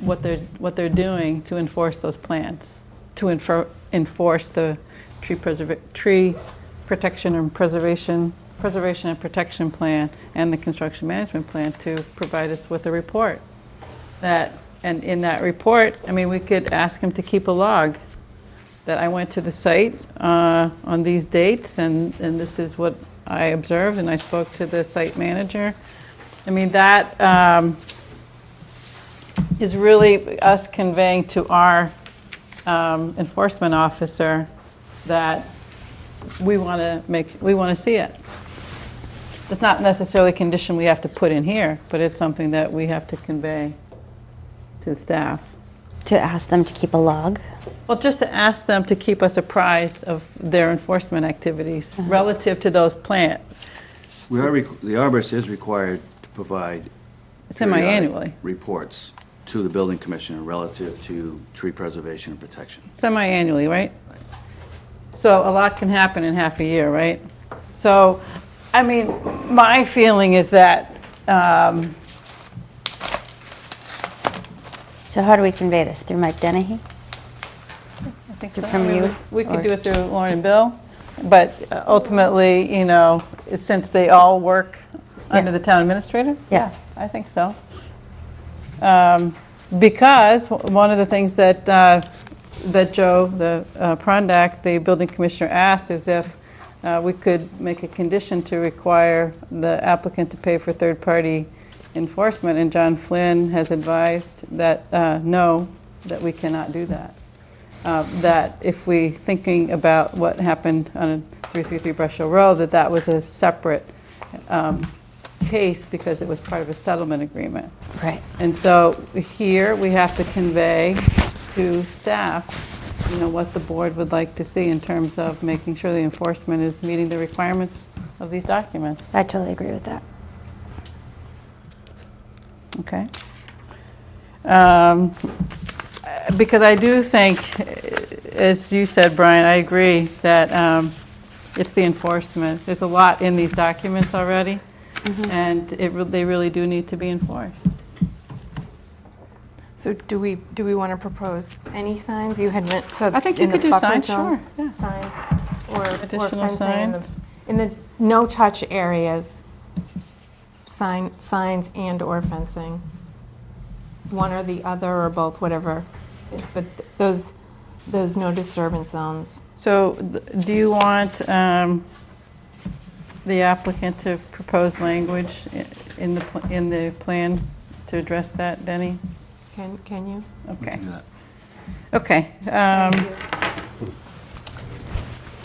what they're, what they're doing to enforce those plans, to enfor- enforce the tree preserva, tree protection and preservation, preservation and protection plan and the construction management plan to provide us with a report. That, and in that report, I mean, we could ask them to keep a log that I went to the site uh, on these dates, and, and this is what I observed, and I spoke to the site manager. I mean, that um, is really us conveying to our um, enforcement officer that we want to make, we want to see it. It's not necessarily a condition we have to put in here, but it's something that we have to convey to staff. To ask them to keep a log. Well, just to ask them to keep us apprised of their enforcement activities relative to those plants. We are, requ- the arborist is required to provide. It's in my periodic annually. Reports to the building commissioner relative to tree preservation and protection. semi-annually, right? So a lot can happen in half a year, right? So, I mean, my feeling is that, um, So how do we convey this? Through Mike Dennehy? I think so. From I mean, you, We we or- could do it through Lauren and Bill, but uh, ultimately, you know, since they all work under the town administrator? Yeah. I think so. Um, Because w- one of the things that, uh, that Joe, the uh, Prondak, the building commissioner asked is if uh, we could make a condition to require the applicant to pay for third-party enforcement, and John Flynn has advised that, uh, no, that we cannot do that uh, that if we thinking about what happened on 333 Brush Hill Road, that that was a separate um, case because it was part of a settlement agreement. Right. And so here, we have to convey to staff, you know, what the board would like to see in terms of making sure the enforcement is meeting the requirements of these documents, I totally agree with that. okay? Um, because I do think, as you said, Brian, I agree that um, it's the enforcement. There's a lot in these documents already, and it, re- they really do need to be enforced. So do we, do we want to propose any signs? You had meant, so. I think you in the could do buffer signs, zones, sure, yeah. Signs or- or Additional fencing in the, signs. in the no-touch areas, sign, signs and/or fencing. One or the other or both, whatever. But those, those no disturbance zones. So th- do you want um, the applicant to propose language i- in the, pl- in the plan to address that, Denny? Can, can you? Okay, Do that. okay. um,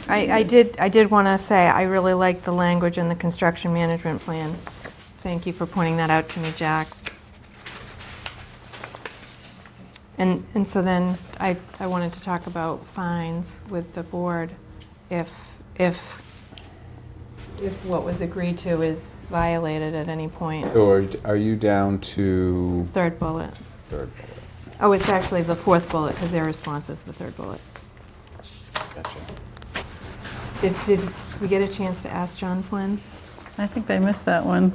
I, I did, I did want to say, I really like the language in the construction management plan. Thank you for pointing that out to me, Jack. And, and so then I, I wanted to talk about fines with the board. If, if, if what was agreed to is violated at any point. So are, are you down to Third bullet. third Oh, it's actually the fourth bullet because their response is the third bullet. bullet? Gotcha. Did, did we get a chance to ask John Flynn? I think I missed that one.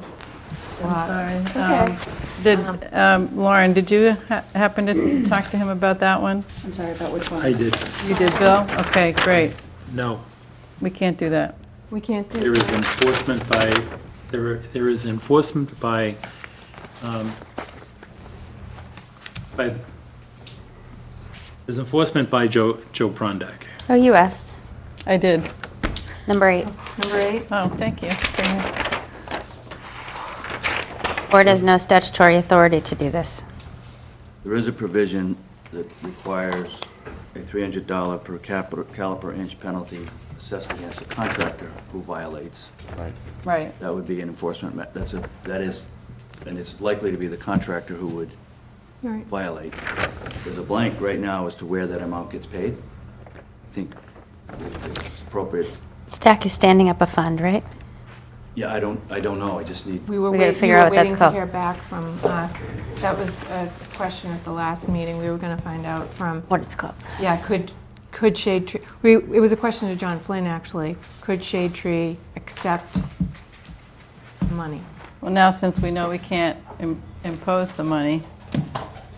Lot. I'm sorry. Um, Did, um, Lauren, did you ha- happen to talk to him about that one? I'm sorry, about which one? I did. You did, Bill? Okay, great. No, We can't do that. We can't do. there is enforcement by, there there is enforcement by, um, by, there's enforcement by Joe, Joe Prondak. Oh, you asked. I did. Number eight. Number eight? Oh, thank you. Board has no statutory authority to do this. There is a provision that requires a $300 per capita- caliper inch penalty assessed against a contractor who violates. Right. That would be an enforcement, me- that's a, that is, and it's likely to be the contractor who would Right. violate. There's a blank right now as to where that amount gets paid. I think it's appropriate. Stack is standing up a fund, right? Yeah, I don't, I don't know, I just need, We were We gotta wait- you figure were out what that's waiting to called. hear back from us. That was a question at the last meeting. We were going to find out from, What it's called. yeah, could, could shade tree, we, it was a question to John Flynn, actually. Could shade tree accept money? Well, now, since we know we can't im- impose the money,